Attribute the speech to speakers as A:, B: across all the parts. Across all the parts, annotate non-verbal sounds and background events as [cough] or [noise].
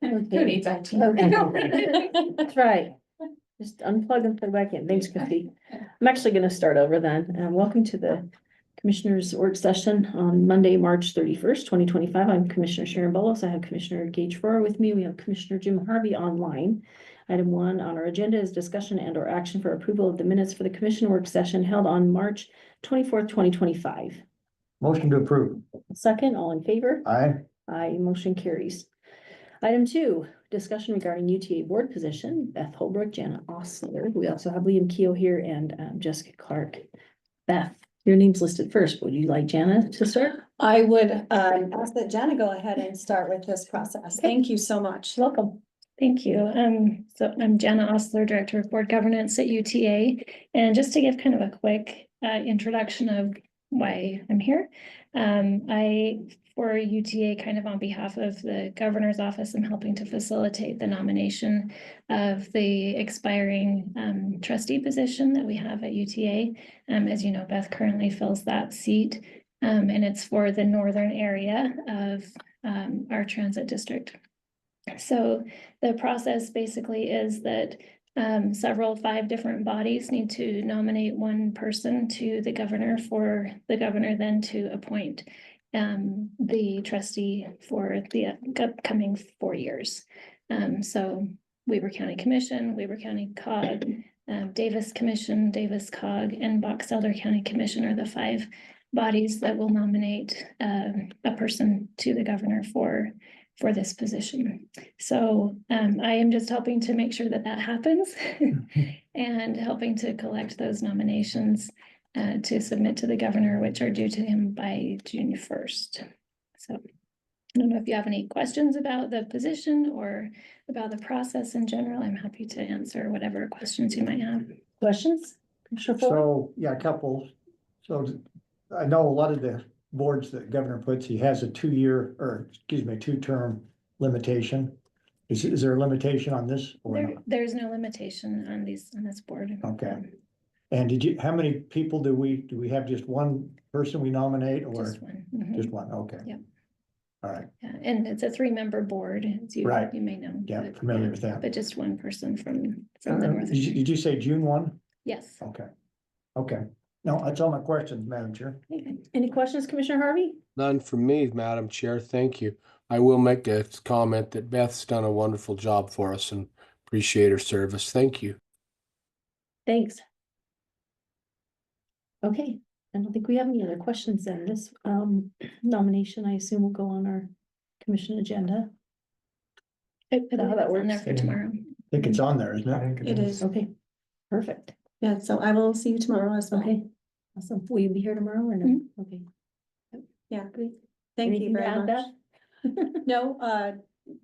A: Who needs IT? [laughs]
B: Okay. [laughs] That's right. Just unplug and put it back in. Thanks, Christie. I'm actually gonna start over then. Um, welcome to the Commissioners Work Session on Monday, March thirty-first, twenty twenty-five. I'm Commissioner Sharon Bolos. I have Commissioner Gage Farrar with me. We have Commissioner Jim Harvey online. Item one on our agenda is discussion and or action for approval of the minutes for the Commission Work Session held on March twenty-fourth, twenty twenty-five.
C: Motion to approve.
B: Second, all in favor?
C: Aye.
B: Aye, motion carries. Item two, discussion regarding UTA board position, Beth Holbrook, Jana Osler. We also have Liam Keel here and um, Jessica Clark. Beth, your name's listed first. Would you like Jana to start?
A: I would um ask that Jenna go ahead and start with this process. Thank you so much.
B: Welcome.
D: Thank you. Um, so I'm Jenna Osler, Director of Board Governance at UTA. And just to give kind of a quick uh introduction of why I'm here. Um, I, for UTA, kind of on behalf of the Governor's Office, I'm helping to facilitate the nomination of the expiring um trustee position that we have at UTA. Um, as you know, Beth currently fills that seat. Um, and it's for the northern area of um our transit district. So the process basically is that um, several, five different bodies need to nominate one person to the governor for the governor then to appoint um, the trustee for the upcoming four years. Um, so Weaver County Commission, Weaver County cog, um, Davis Commission, Davis cog, and Box Elder County Commission are the five bodies that will nominate um, a person to the governor for for this position. So um, I am just helping to make sure that that happens
C: Mm-hmm.
D: [laughs] and helping to collect those nominations uh, to submit to the governor, which are due to him by June first. So I don't know if you have any questions about the position or about the process in general. I'm happy to answer whatever questions you might have.
B: Questions? Commissioner Fuller?
C: So, yeah, a couple. So I know a lot of the boards that governor puts, he has a two-year, or excuse me, two-term limitation. Is, is there a limitation on this or
D: There,
C: not?
D: there's no limitation on these, on this board.
C: Okay. And did you, how many people do we, do we have just one person we nominate or
D: Just one. Mhm.
C: just one? Okay.
D: Yep.
C: All right,
D: Yeah, and it's a three-member board, as you,
C: Right.
D: you may know.
C: yeah,
D: but-
C: familiar with that.
D: But just one person from, from the north.
C: Did you, did you say June one?
D: Yes.
C: Okay. Okay. No, that's all my questions, Madam Chair.
B: Any questions, Commissioner Harvey?
E: None from me, Madam Chair. Thank you. I will make a comment that Beth's done a wonderful job for us and appreciate her service. Thank you.
B: Thanks. Okay, I don't think we have any other questions then. This um nomination, I assume, will go on our commission agenda.
D: I- I believe
B: that
D: it's on there
B: works.
D: For tomorrow.
C: I think it's on there, isn't it?
A: It is.
B: Okay, perfect.
A: Yeah, so I will see you tomorrow as well.
B: Okay, awesome. Will you be here tomorrow or no?
D: Mhm.
B: Okay.
A: Yeah.
B: Great.
A: Mm-hmm. Thank you
B: Anything to
A: very
B: add,
A: much. No, uh,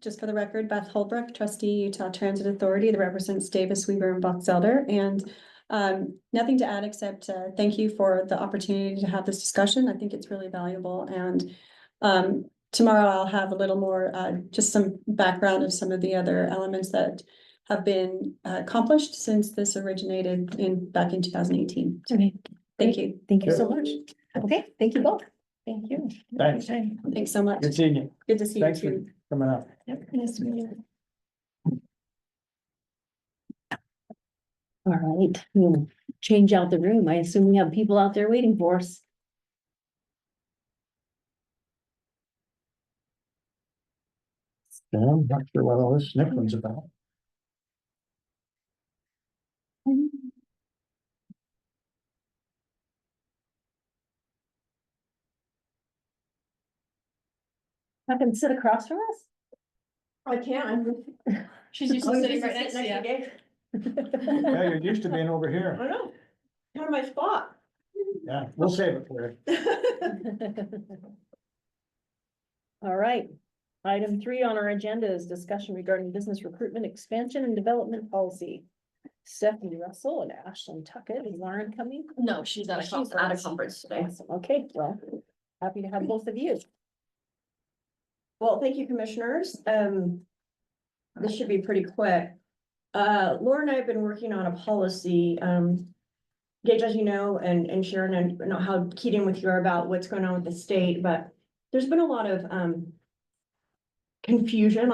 A: just for the record, Beth Holbrook, trustee Utah Transit Authority that represents Davis Weaver and Box Elder. And um, nothing to add except uh, thank you for the opportunity to have this discussion. I think it's really valuable and um, tomorrow I'll have a little more, uh, just some background of some of the other elements that have been uh, accomplished since this originated in, back in two thousand eighteen.
B: Beth? Okay,
A: Thank you.
B: thank you so much. Okay, thank you both. Thank you.
C: Thanks.
D: Okay.
A: Thanks so much.
C: Good seeing you.
A: Good to see you
C: Thanks
A: too.
C: for coming up.
D: Yep, nice to meet you.
B: All right, we'll change out the room. I assume we have people out there waiting for us.
C: Yeah, I'm not sure what all this next one's about.
B: I can sit across from us?
F: I can. She's used
B: Oh,
F: to
B: you're used
F: sitting
B: to
F: right next to
B: sitting
F: you.
C: [laughs] Yeah, you're used to being over
F: I
C: here.
F: know. You're in my spot.
C: Yeah, we'll save it for you.
B: All right. Item three on our agenda is discussion regarding business recruitment, expansion and development policy. Stephanie Russell and Ashlyn Tuckett. Is Lauren coming?
F: No, she's at a
B: She's
F: conference, at a
B: awesome.
F: conference today.
B: Awesome. Okay, well, happy to have both of you.
F: Well, thank you, commissioners. Um, this should be pretty quick. Uh, Laura and I have been working on a policy, um, Gage, as you know, and, and Sharon, and I know how keyed in with you are about what's going on with the state, but there's been a lot of, um, confusion